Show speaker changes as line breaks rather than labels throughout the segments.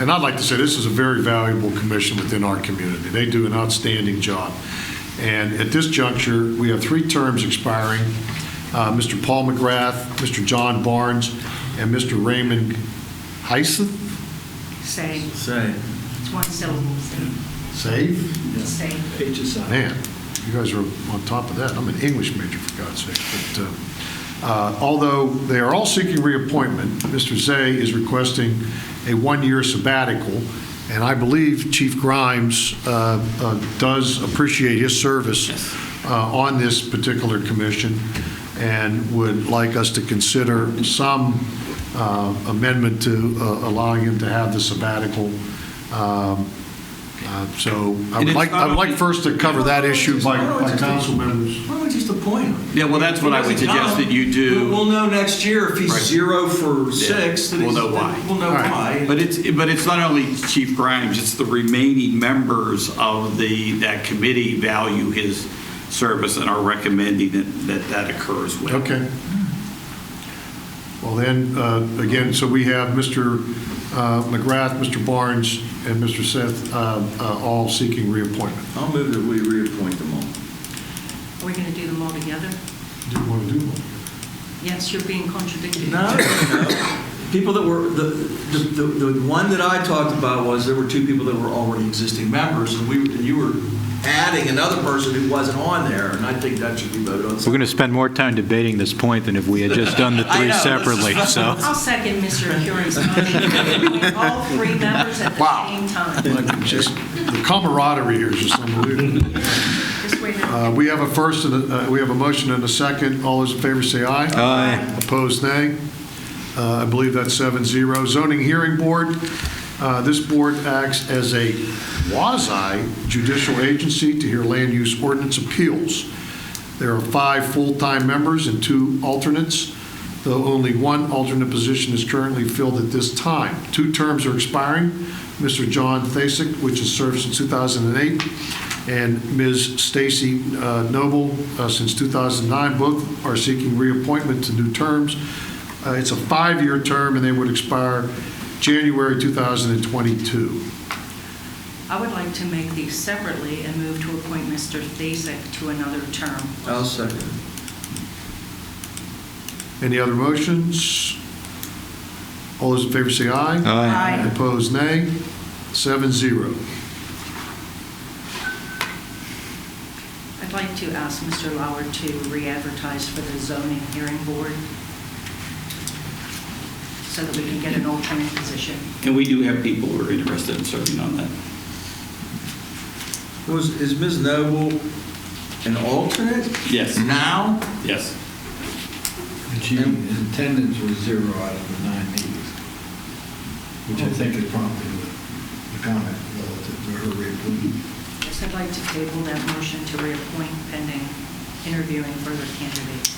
and I'd like to say, this is a very valuable commission within our community. They do an outstanding job. And at this juncture, we have three terms expiring, uh, Mr. Paul McGrath, Mr. John Barnes, and Mr. Raymond Heisen,
Same,
Same.
it's one syllable, same,
save?
same.
Pages on.
Man, you guys are on top of that. I'm an English major, for God's sake. But uh, uh, although they are all seeking reappointment, Mr. Zay is requesting a one-year sabbatical, and I believe Chief Grimes uh, uh, does appreciate his service uh, on this particular commission and would like us to consider some uh, amendment to uh, allowing him to have the sabbatical. Um, uh, So I
And
would
it's
like, I would
not
like
only-
first to cover that issue by,
Why don't we
by
just-
council members.
Why don't we just appoint him?
Yeah, well, that's what I would
Because he
suggest
come,
that you do.
We'll we'll know next year if he's
Right.
zero for six. that
We'll
he's-
know why.
We'll know
All right.
why.
But it's, but it's not only Chief Grimes, it's the remaining members of the, that committee value his service and are recommending that, that that occurs with.
Okay. Well, then, uh, again, so we have Mr. uh, McGrath, Mr. Barnes, and Mr. Seth uh, uh, all seeking reappointment.
I'll move that we reappoint them all.
Are we going to do them all together?
Do you want to do them?
Yes, you're being contradicted.
No, no. People that were, the, the, the the one that I talked about was there were two people that were already existing members and we, and you were adding another person who wasn't on there and I think that should be voted on.
We're going to spend more time debating this point than if we had just done the
I
three
know, this is-
separately, so.
I'll second Mr. Curie's motion. All three members at the
Wow.
same time.
Like, Just, the camaraderie here is just unbelievable.
Just wait a
Uh, We have a first, and a- uh, we have a motion and a second. All those in favor say aye.
Aye.
Opposed, nay. Uh, I believe that's seven zero. Zoning Hearing Board, uh, this board acts as a quasi judicial agency to hear land use ordinance appeals. There are five full-time members and two alternates, though only one alternate position is currently filled at this time. Two terms are expiring, Mr. John Thasek, which has served since 2008, and Ms. Stacy uh, Noble uh, since 2009. Both are seeking reappointment to new terms. Uh, It's a five-year term, and they would expire January 2022.
I would like to make these separately and move to appoint Mr. Thasek to another term.
I'll second.
Any other motions? All those in favor say aye.
Aye.
Aye.
Opposed, nay. Seven zero.
I'd like to ask Mr. Lauer to re-advertise for the zoning hearing board so that we can get an alternate position.
And we do have people who are interested in serving on that.
Was, is Ms. Noble an alternate?
Yes.
Now?
Yes.
And she, attendance was zero out of the nine meetings, which I think is prompted the comment relative to her reappointment.
Yes, I'd like to table that motion to reappoint pending interviewing further candidates.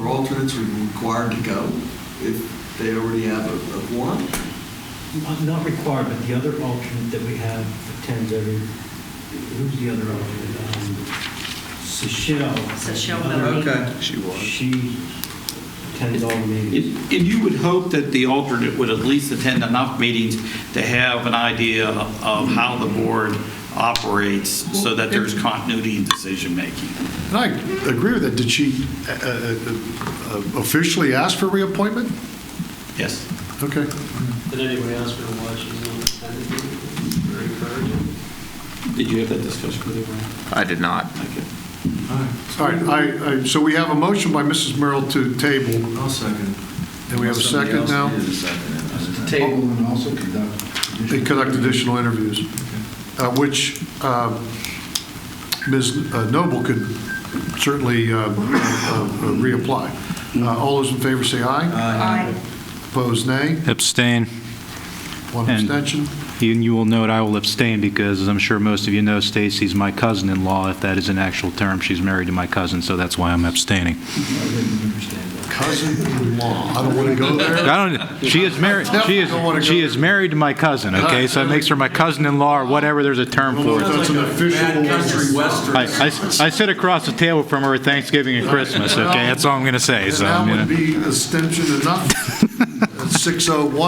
Or alternates would be required to go if they already have a, a quorum?
Not- Not required, but the other alternate that we have attends every, who's the other alternate? Um, Seychelle.
Seychelle
The other-
Mallory.
Okay.
She attends all the meetings.
And you would hope that the alternate would at least attend enough meetings to have an idea of how the board operates so that there's continuity in decision-making.
And I agree with that. Did she uh, uh, uh, officially ask for reappointment?
Yes.
Okay.
Did anyone else want to watch? Very encouraging.
Did you have that discussion with everyone?
I did not.
Okay.
All right, I, I- so we have a motion by Mrs. Merrill to table,
I'll second.
and we have a second now.
Table and also conduct.
They conduct additional interviews, uh, which uh, Ms. Noble could certainly uh, uh, uh, reapply. Uh, All those in favor say aye.
Aye.
Opposed, nay.
Abstain.
One
And-
abstention.
And you will note I will abstain because, as I'm sure most of you know, Stacy's my cousin-in-law, if that is an actual term. She's married to my cousin, so that's why I'm abstaining.
I didn't understand that.
Cousin-in-law. I don't want to go there.
I don't, she is married, she
Don't wanna
is,
go
she
there.
is married to my cousin, okay? So it makes her my cousin-in-law or whatever, there's a term
Well,
for it.
That's an official-
Bad country western.
I, I- I sit across the table from her at Thanksgiving and Christmas, okay? That's all I'm going to say,
And
so.
that
you know.
would be abstention enough. oh That's 601.